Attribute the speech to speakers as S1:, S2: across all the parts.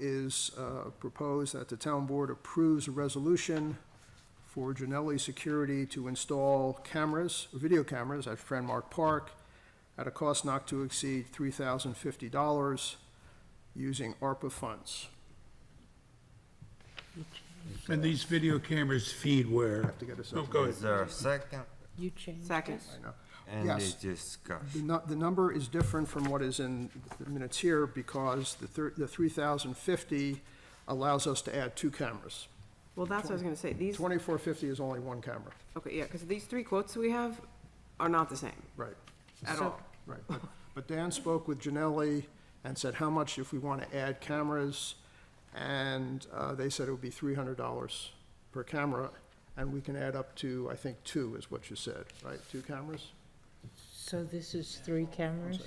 S1: is uh, proposed that the town board approves a resolution for Janelli Security to install cameras, video cameras at Friendmark Park at a cost not to exceed $3,050 using ARPA funds.
S2: And these video cameras feed where?
S1: Have to get a
S2: Oh,
S1: second.
S2: go ahead.
S3: Is there a second?
S4: You changed.
S5: Second.
S1: I know.
S3: Any
S1: Yes. The
S3: discussion?
S1: nu, the number is different from what is in the minutes here because the thir, the three thousand fifty allows us to add two cameras.
S5: Well, that's what I was gonna say, these,
S1: Twenty-four fifty is only one camera,
S5: okay, yeah, because these three quotes we have are not the same
S1: right,
S5: at
S1: So-
S5: all.
S1: right. But- But Dan spoke with Janelli and said how much if we want to add cameras, and, uh, they said it would be three hundred dollars per camera, and we can add up to, I think, two is what you said, right, two cameras?
S4: So this is three cameras?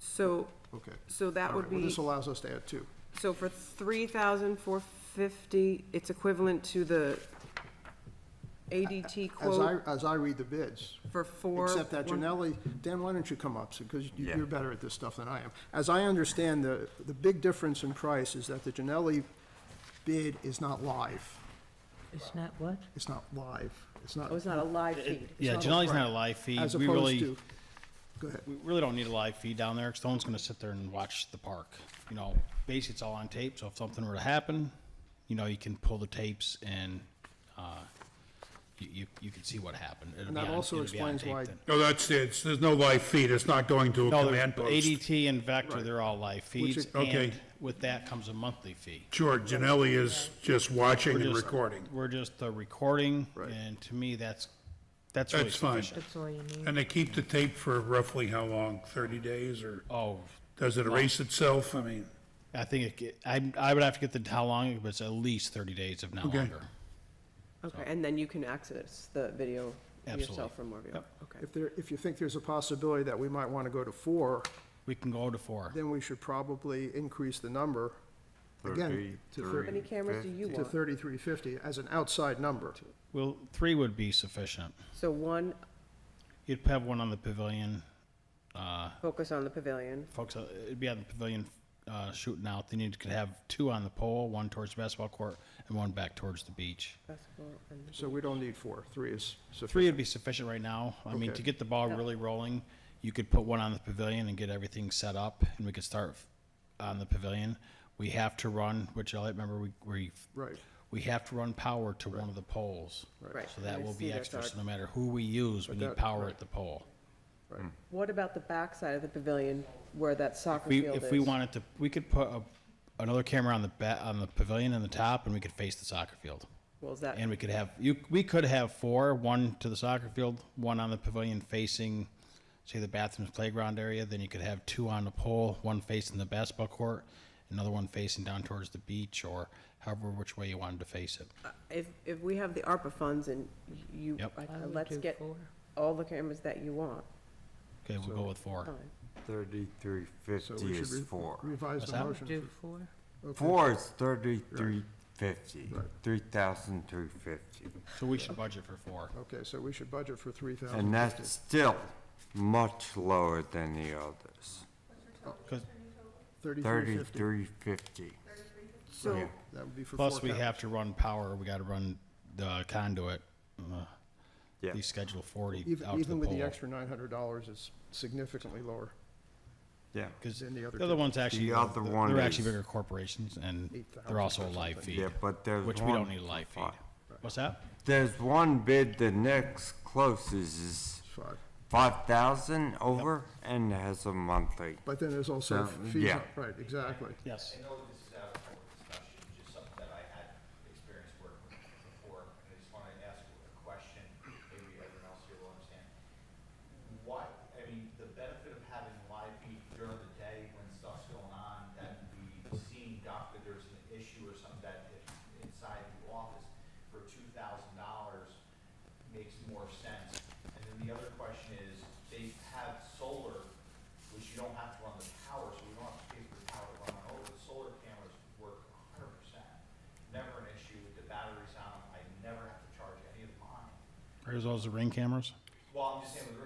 S5: So,
S1: Okay.
S5: so that
S1: All
S5: would
S1: right, well,
S5: be,
S1: this allows us to add two.
S5: so for three thousand four fifty, it's equivalent to the ADT
S1: As I,
S5: quote
S1: as I read the bids,
S5: for four.
S1: Except that
S5: one-
S1: Janelli, Dan, why don't you come up, because
S3: Yeah.
S1: you're better at this stuff than I am. As I understand, the, the big difference in price is that the Janelli bid is not live.
S4: It's not what?
S1: It's not live. It's not,
S5: Oh, it's not a live feed.
S6: Yeah,
S1: not a
S6: Janelle's
S1: threat.
S6: not a live feed.
S1: as
S6: We
S1: opposed
S6: really,
S1: to, go ahead.
S6: we really don't need a live feed down there, 'cause no one's gonna sit there and watch the park. You know, basically, it's all on tape, so if something were to happen, you know, you can pull the tapes and, uh, you, you, you can see what happened. It'll
S1: And
S6: be
S1: that
S6: on-
S1: also
S6: it'll be on
S1: explains
S6: tape
S1: why-
S6: then.
S2: No, that's it. It's- There's no live feed. It's not going to a
S6: No,
S2: command
S6: they're-
S2: post.
S6: ADT and Vector, they're all live feeds,
S1: is-
S2: Okay.
S6: and with that comes a monthly fee.
S2: Sure, Janelli is just watching and
S6: Just-
S2: recording.
S6: We're just uh, recording, and to me, that's, that's really
S2: That's fine.
S6: sufficient.
S4: That's all you need?
S2: And they keep the tape for roughly how long? 30 days or
S6: Oh,
S2: does it erase itself? I mean,
S6: I think it, ge- I, I would have to get the, how long, but it's at least thirty days, if not
S2: Okay.
S6: longer.
S5: Okay, and then you can access the video
S6: Absolutely.
S5: yourself from Morview. Okay.
S1: If there, if you think there's a possibility that we might want to go to four,
S6: We can go to four.
S1: then we should probably increase the number again to
S5: How many cameras do you
S1: thir- to
S5: want?
S1: thirty-three fifty as an outside number.
S6: Well, three would be sufficient.
S5: So one,
S6: You'd have one on the pavilion, uh,
S5: focus on the pavilion.
S6: folks, uh, it'd be on the pavilion, uh, shooting out. Then you could have two on the pole, one towards the basketball court and one back towards the beach.
S5: basketball, and-
S1: So we don't need four. Three is
S6: Three would
S1: sufficient.
S6: be sufficient right now. I mean,
S1: Okay.
S6: to get the ball really rolling, you could put one on the pavilion and get everything set up and we could start f- on the pavilion. We have to run, which I remember we, we
S1: Right.
S6: we have to run power to one of the poles.
S5: Right.
S6: So that
S5: I
S6: will
S5: see
S6: be
S5: that's
S6: extra,
S5: our-
S6: so no matter who we use, we
S1: But
S6: need
S1: that-
S6: power
S1: right.
S6: at the pole.
S5: What about the backside of the pavilion where that soccer
S6: We,
S5: field is?
S6: if we wanted to, we could put a, another camera on the ba, on the pavilion in the top, and we could face the soccer field.
S5: Well, is that,
S6: And we could have, you, we could have four, one to the soccer field, one on the pavilion facing, say, the bathrooms playground area, then you could have two on the pole, one facing the basketball court, another one facing down towards the beach, or however which way you wanted to face it.
S5: if, if we have the ARPA funds and you,
S6: Yep.
S5: I-
S4: I would
S5: let's
S4: do
S5: get
S4: four.
S5: all the cameras that you want,
S6: Okay, we'll go with four.
S5: fine.
S3: Thirty-three
S1: So
S3: fifty
S1: we should
S3: is
S1: re-
S3: four.
S1: Revise
S6: What's
S1: the
S6: that?
S1: motion.
S4: Do four?
S1: Okay.
S3: Four is thirty-three fifty,
S1: Right.
S3: three thousand three fifty.
S6: So we should budget for four.
S1: Okay, so we should budget for three thousand.
S3: And that's still much lower than the others.
S6: 'Cause-
S1: Thirty-three fifty,
S3: Thirty-three fifty.
S5: So,
S1: that would be for four
S6: Plus, we have to run power, we gotta run the conduit, uh,
S3: Yeah,
S6: the schedule forty
S1: Even,
S6: out to the
S1: even with the
S6: pole.
S1: extra nine hundred dollars, it's significantly lower
S3: yeah.
S6: Cause
S1: than the other.
S6: the other
S1: two.
S6: one's actually,
S3: The other one
S6: they're actually
S3: is-
S6: bigger corporations and they're
S1: 8,000
S6: also
S1: or
S6: a live
S1: something.
S6: feed,
S3: Yeah, but there's
S6: which we
S3: one
S6: don't need a live
S3: for
S6: feed. What's that?
S3: There's one bid, the next closest is
S1: It's Five,
S3: five thousand over and has a monthly.
S1: but then there's also
S3: So,
S1: fees,
S3: yeah.
S1: on- right, exactly.
S6: Yes.
S7: I know this is out of court discussion, just something that I had experience working with before, and I just want to ask a question, maybe everyone else here will understand. Why, I mean, the benefit of having live feed during the day when stuff's going on, that we seeing doctor, there's an issue or something that if inside the office for two thousand dollars makes more sense. And then the other question is, they have solar which you don't have to run the power, so you don't have to pay for the power to run over. The solar cameras work hundred percent, never an issue, the batteries on them, I never have to charge any of mine.
S6: Are those the ring cameras?
S7: Well, I'm just saying with